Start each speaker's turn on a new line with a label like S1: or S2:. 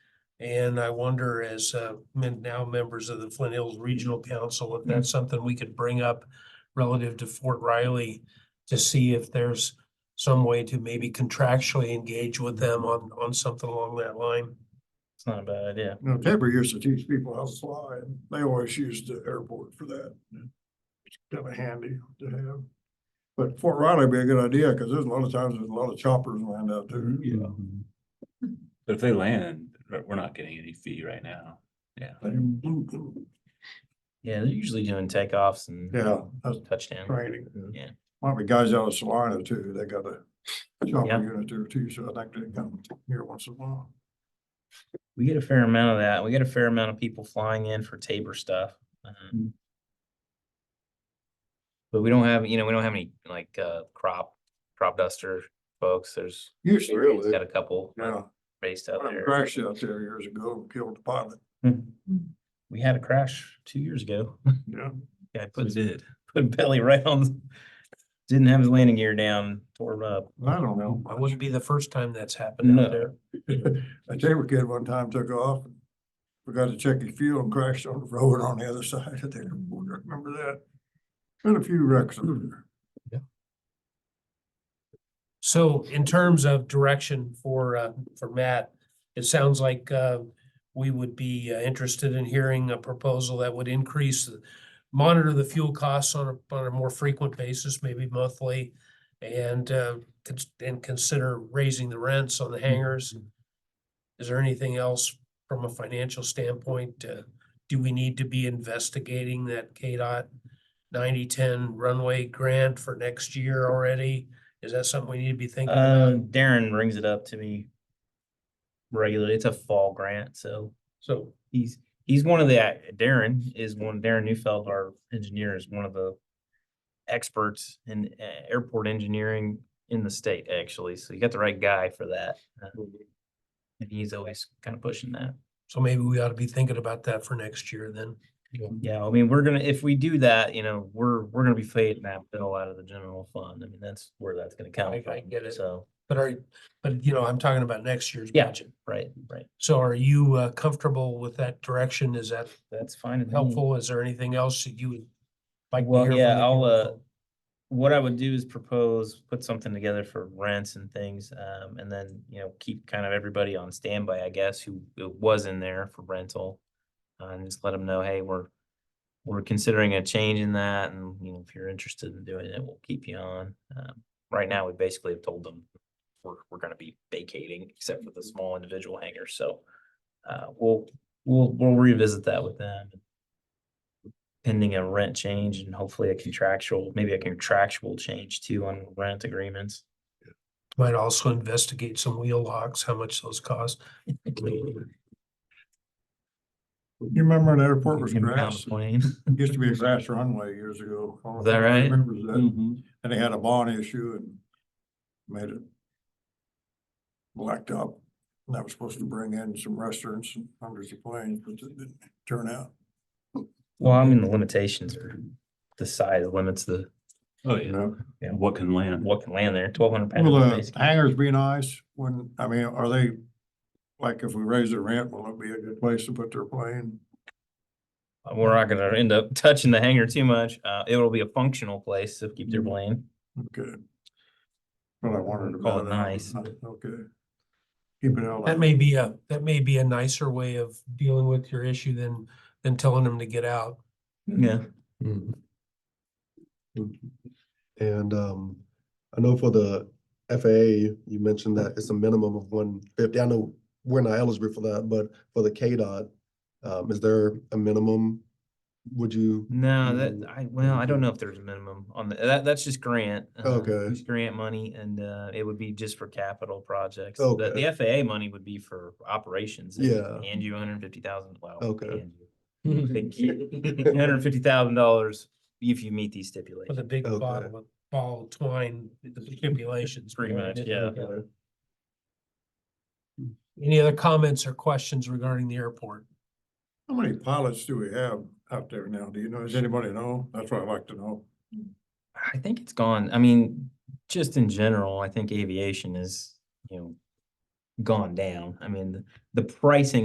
S1: And I wonder as uh, men- now members of the Flint Hills Regional Council, if
S2: Mm.
S1: that's something we could bring up relative to Fort Riley to see if there's some way to maybe contractually engage with them on, on something along that line.
S2: It's not a bad idea.
S3: You know, Tabor used to teach people how to fly and they always used the airport for that. It's kind of handy to have. But Fort Riley would be a good idea because there's a lot of times there's a lot of choppers lined up there.
S4: Yeah. But if they land, we're we're not getting any fee right now.
S2: Yeah, they're usually doing takeoffs and
S3: Yeah, that's
S2: touchdowns.
S3: training.
S2: Yeah.
S3: Might be guys out of Salina too. They got a
S2: Yeah.
S3: chopper unit there too, so I think they come here once in a while.
S2: We get a fair amount of that. We get a fair amount of people flying in for Tabor stuff. um,
S4: Mm.
S2: But we don't have, you know, we don't have any like uh crop, crop duster folks. There's
S3: Usually,
S2: it's
S3: really.
S2: got a couple
S3: Yeah,
S2: based out
S3: I had a
S2: there.
S3: crash out there years ago, and killed the pilot.
S2: We had a crash two years ago.
S3: Yeah.
S2: Guy
S4: We
S2: put,
S4: did.
S2: put belly right on, didn't have his landing gear down, tore it up.
S3: I don't know.
S1: It wouldn't be the first time that's happened
S2: No.
S1: out there.
S3: A Tabor kid one time took off, and forgot to check his fuel and crashed on the road on the other side of the airport. I Remember that? Been a few wrecks over there.
S1: So in terms of direction for, uh, for Matt, it sounds like, uh, we would be uh, interested in hearing a proposal that would increase, the- monitor the fuel costs on a, on a more frequent basis, maybe monthly, and, uh, cons- and consider raising the rents on the hangars. Is there anything else from a financial standpoint? uh, Do we need to be investigating that KDOT ninety-ten runway grant for next year already? Is that something we need to be thinking
S2: Uh,
S1: about?
S2: Darren brings it up to me regularly. It's a fall grant, so
S1: So,
S2: he's, he's one of the, ac- Darren is one, Darren Newfeld, our engineer, is one of the experts in uh, airport engineering in the state, actually. So you got the right guy for that. uh,
S1: Mm-hmm.
S2: And he's always kind of pushing that.
S1: so maybe we ought to be thinking about that for next year then.
S2: Yeah, I mean, we're gonna, if we do that, you know, we're, we're gonna be fading that bill out of the general fund. I mean, that's where that's gonna come
S1: I- I
S2: from.
S1: get it.
S2: So,
S1: But are, but you know, I'm talking about next year's
S2: Yeah.
S1: budget.
S2: right, right.
S1: So are you uh, comfortable with that direction? Is that
S2: That's fine and helpful.
S1: helpful? Is there anything else that you would like to
S2: Well,
S1: hear from
S2: yeah,
S1: the
S2: I'll, uh,
S1: council?
S2: What I would do is propose, put something together for rents and things, um, and then, you know, keep kind of everybody on standby, I guess, who who was in there for rental. uh, And just let them know, hey, we're, we're considering a change in that and, you know, if you're interested in doing it, we'll keep you on. Um, Right now, we basically have told them we're, we're gonna be vacating except for the small individual hangars, so. Uh, we'll, we'll, we'll revisit that with them pending a rent change and hopefully a contractual, maybe a contractual change too on rent agreements.
S1: Might also investigate some wheel locks, how much those cost.
S3: You remember when the airport was
S2: Can pound a
S3: grass?
S2: plane.
S3: It Used to be a grass runway years ago. I don't know
S2: Is that
S3: if
S2: right?
S3: everybody
S2: Mm.
S3: Remembers that. And they had a bond issue and made it blacked up. And that was supposed to bring in some restaurants and hundreds of planes, but it didn't turn out.
S2: Well, I mean, the limitations are, the size limits the,
S4: Oh,
S3: You
S4: yeah.
S3: know,
S4: And what can land?
S2: what can land there, twelve hundred
S3: will
S2: pounds.
S3: the
S2: basically.
S3: hangars be nice when, I mean, are they, like if we raise the rent, will it be a good place to put their plane?
S2: We're not gonna end up touching the hangar too much. Uh, it'll be a functional place to keep their
S3: Mhm.
S2: plane.
S3: Okay. Well, I wanted to.
S2: Call it nice, but-
S3: Okay. Keep it all.
S1: That may be a, that may be a nicer way of dealing with your issue than, than telling them to get out.
S2: Yeah.
S5: Mhm. Mhm. And um, I know for the FAA, you mentioned that it's a minimum of one fifty. I know we're not eligible for that, but for the KDOT, um, is there a minimum? Would you,
S2: No,
S5: Mm.
S2: that, I, well, I don't know if there's a minimum on the, that, that's just grant. uh,
S5: Okay.
S2: just Grant money and, uh, it would be just for capital projects. The, the FAA money would be for operations. They
S5: Yeah.
S2: Hand you hundred and fifty thousand, wow.
S5: Okay.
S2: Mm-hmm. Hundred fifty thousand dollars if you meet these
S1: With a
S2: stipulations.
S1: big
S5: Okay.
S1: bottle of ball twine, the stipulations.
S2: Pretty
S1: behind
S2: much,
S1: it.
S2: yeah.
S5: Okay.
S1: Any other comments or questions regarding the airport?
S3: How many pilots do we have out there now? Do you know, does anybody know? That's what I'd like to know.
S2: I think it's gone. I mean, just in general, I think aviation is, you know, gone down. I mean, the- the pricing